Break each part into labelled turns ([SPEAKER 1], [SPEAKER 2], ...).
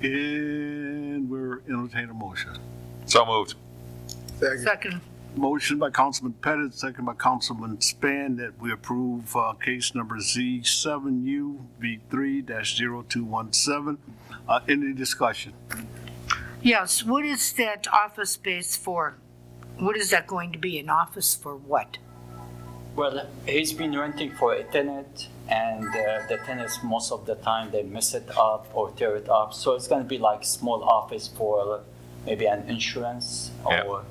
[SPEAKER 1] And we're entertain a motion.
[SPEAKER 2] So moved.
[SPEAKER 3] Second.
[SPEAKER 4] Second,
[SPEAKER 1] Motion by Councilman Pettit, second by Councilman Span, that we approve uh, case number Z7UV3-0217. Uh, Any discussion?
[SPEAKER 4] yes, what is that office space for? What is that going to be, an office for what?
[SPEAKER 5] Well, he's been renting for a tenant, and uh, the tenants, most of the time, they mess it up or tear it up. So it's going to be like small office for maybe an insurance
[SPEAKER 2] Yeah.
[SPEAKER 5] or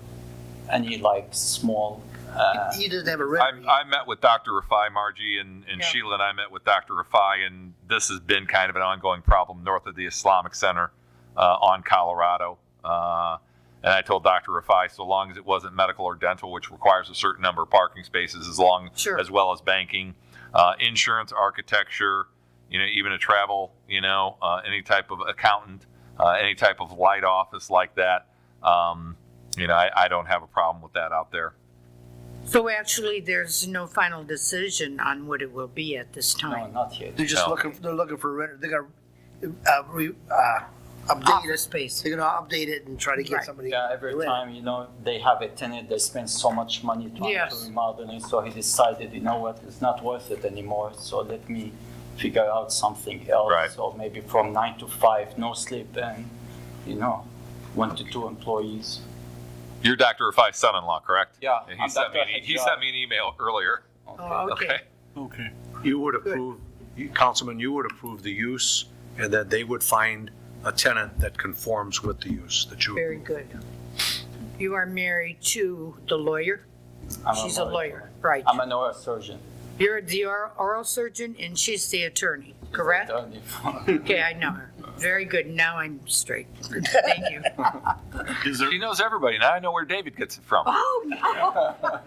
[SPEAKER 5] any like small. Uh,
[SPEAKER 3] He doesn't have a
[SPEAKER 2] I,
[SPEAKER 3] record.
[SPEAKER 2] I met with Dr. Rafai, Margie, and, and
[SPEAKER 4] Yeah.
[SPEAKER 2] Sheila and I met with Dr. Rafai, and this has been kind of an ongoing problem north of the Islamic Center uh, on Colorado. Uh, and I told Dr. Rafai, so long as it wasn't medical or dental, which requires a certain number of parking spaces, as long
[SPEAKER 4] Sure.
[SPEAKER 2] as well as banking, uh, insurance, architecture, you know, even a travel, you know, uh, any type of accountant, uh, any type of light office like that. Um, you know, I, I don't have a problem with that out there.
[SPEAKER 4] So actually, there's no final decision on what it will be at this
[SPEAKER 5] no,
[SPEAKER 4] time.
[SPEAKER 5] not yet.
[SPEAKER 3] They're just
[SPEAKER 2] No.
[SPEAKER 3] looking, they're looking for a renter, they're gonna, uh, re, uh, update
[SPEAKER 4] Office
[SPEAKER 3] it.
[SPEAKER 4] space,
[SPEAKER 3] They're gonna update it and try to get
[SPEAKER 4] Right.
[SPEAKER 3] somebody.
[SPEAKER 5] Yeah, every
[SPEAKER 3] to rent.
[SPEAKER 5] time, you know, they have a tenant, they spend so much money trying
[SPEAKER 4] Yes.
[SPEAKER 5] to remodeling. So he decided, you know what, it's not worth it anymore. So let me figure out something else.
[SPEAKER 2] Right.
[SPEAKER 5] Or maybe from nine to five, no sleep, and, you know, one to two employees.
[SPEAKER 2] You're Dr. Rafai's son-in-law, correct?
[SPEAKER 5] Yeah,
[SPEAKER 2] And
[SPEAKER 5] I'm
[SPEAKER 2] he sent me,
[SPEAKER 5] Dr.
[SPEAKER 2] an- e- he
[SPEAKER 5] Hajjar.
[SPEAKER 2] sent me an email earlier.
[SPEAKER 4] oh, okay.
[SPEAKER 2] Okay.
[SPEAKER 1] Okay.
[SPEAKER 6] You would approve, you- Councilman, you would approve the use, and then they would find a tenant that conforms with the use that you.
[SPEAKER 4] Very good. You are married to the lawyer?
[SPEAKER 5] I'm
[SPEAKER 4] She's a lawyer, right.
[SPEAKER 5] I'm a neurosurgeon.
[SPEAKER 4] You're the or- oral surgeon and she's the attorney, correct?
[SPEAKER 5] Attorney for-
[SPEAKER 4] Okay, I know her. Very good, now I'm straight. Thank you.
[SPEAKER 1] Is there,
[SPEAKER 2] She knows everybody. Now I know where David gets it from.
[SPEAKER 4] Oh, no.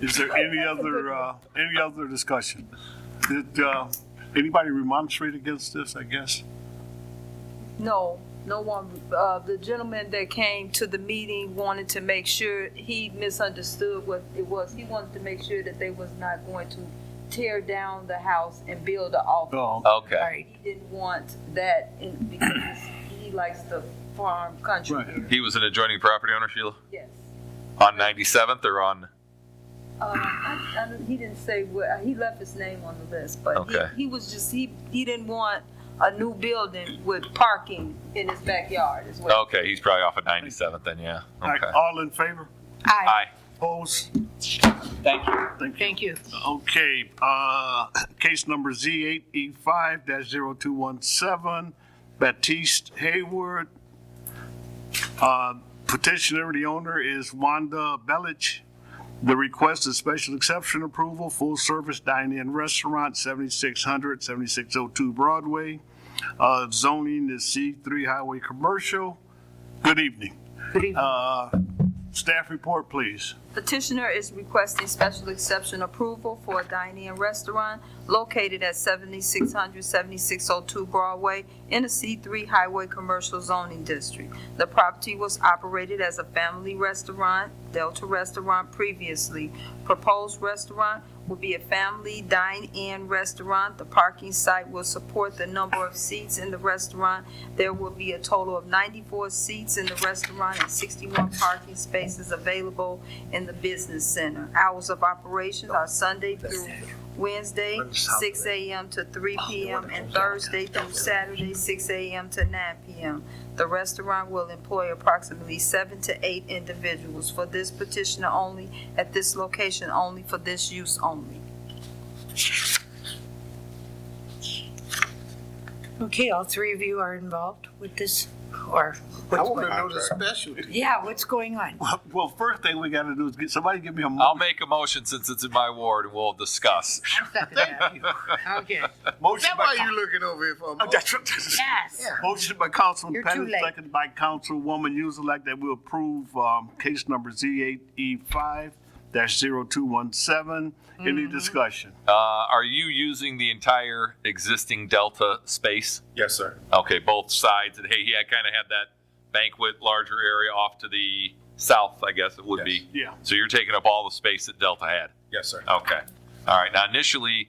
[SPEAKER 1] is there any other, uh, any other discussion? Did uh, anybody remonstrate against this, I guess?
[SPEAKER 7] No, no one, uh, the gentleman that came to the meeting wanted to make sure, he misunderstood what it was. He wanted to make sure that they was not going to tear down the house and build a office.
[SPEAKER 2] Oh,
[SPEAKER 1] No.
[SPEAKER 4] All
[SPEAKER 2] Okay.
[SPEAKER 4] right.
[SPEAKER 7] He didn't want that in, because he likes the farm country.
[SPEAKER 1] Right.
[SPEAKER 2] He was an adjoining property owner, Sheila,
[SPEAKER 7] Yes.
[SPEAKER 2] on 97th or on,
[SPEAKER 7] Uh, I, I, don't- he didn't say what, uh, he left his name on the list, but
[SPEAKER 2] Okay.
[SPEAKER 7] he, he was just, he, he didn't want a new building with parking in his backyard as well.
[SPEAKER 2] okay, he's probably off at 97th then, yeah.
[SPEAKER 1] All right,
[SPEAKER 2] Okay.
[SPEAKER 1] All in favor?
[SPEAKER 4] Aye,
[SPEAKER 2] Aye.
[SPEAKER 1] Opposed?
[SPEAKER 5] Thank you.
[SPEAKER 1] Thank you.
[SPEAKER 4] thank you.
[SPEAKER 1] Okay, uh, case number E Z8E5-0217, Baptiste Hayward. Uh, Petitioner, the owner is Wanda Belich. The request is special exception approval, full-service dine-in restaurant, 7600, 7602 Broadway. Uh, Zoning is C3 Highway Commercial. Good evening.
[SPEAKER 4] Good evening.
[SPEAKER 1] Uh, Staff report, please.
[SPEAKER 7] Petitioner is requesting special exception approval for a dine-in restaurant located at 7600, 7602 Broadway in the C3 Highway Commercial Zoning District. The property was operated as a family restaurant, Delta Restaurant previously. Proposed restaurant will be a family dine-in restaurant. The parking site will support the number of seats in the restaurant. There will be a total of 94 seats in the restaurant and 61 parking spaces available in the business center. Hours of operations are Sunday through Wednesday, six AM to three PM, and Thursday through Saturday, six AM to nine PM. The restaurant will employ approximately seven to eight individuals for this petitioner only, at this location only, for this use only.
[SPEAKER 4] Okay, all three of you are involved with this, or,
[SPEAKER 3] I wanna know the specialty.
[SPEAKER 4] yeah, what's going on?
[SPEAKER 1] Well, first thing we gotta do is get, somebody give
[SPEAKER 4] Oh,
[SPEAKER 1] me a
[SPEAKER 2] I'll
[SPEAKER 1] motion.
[SPEAKER 2] make a motion since it's in my ward and we'll discuss.
[SPEAKER 4] I'll second that. Okay,
[SPEAKER 1] Motion by,
[SPEAKER 3] you looking over here for a
[SPEAKER 1] Oh, that's what this is.
[SPEAKER 4] yes.
[SPEAKER 1] motion by Councilman
[SPEAKER 4] You're too
[SPEAKER 1] Pettit,
[SPEAKER 4] late.
[SPEAKER 1] second by Councilwoman Uselak, that we approve, um, case number Z eight E five dash zero two one seven. Any
[SPEAKER 4] Mm-hmm.
[SPEAKER 1] discussion?
[SPEAKER 2] Uh, are you using the entire existing Delta space?
[SPEAKER 6] Yes, sir.
[SPEAKER 2] Okay, both sides. And hey, yeah, I kind of had that banquet larger area off to the south, I guess it would
[SPEAKER 6] Yes.
[SPEAKER 2] be.
[SPEAKER 1] Yeah.
[SPEAKER 2] So you're taking up all the space that Delta had?
[SPEAKER 6] Yes, sir.
[SPEAKER 2] Okay. All right. Now, initially,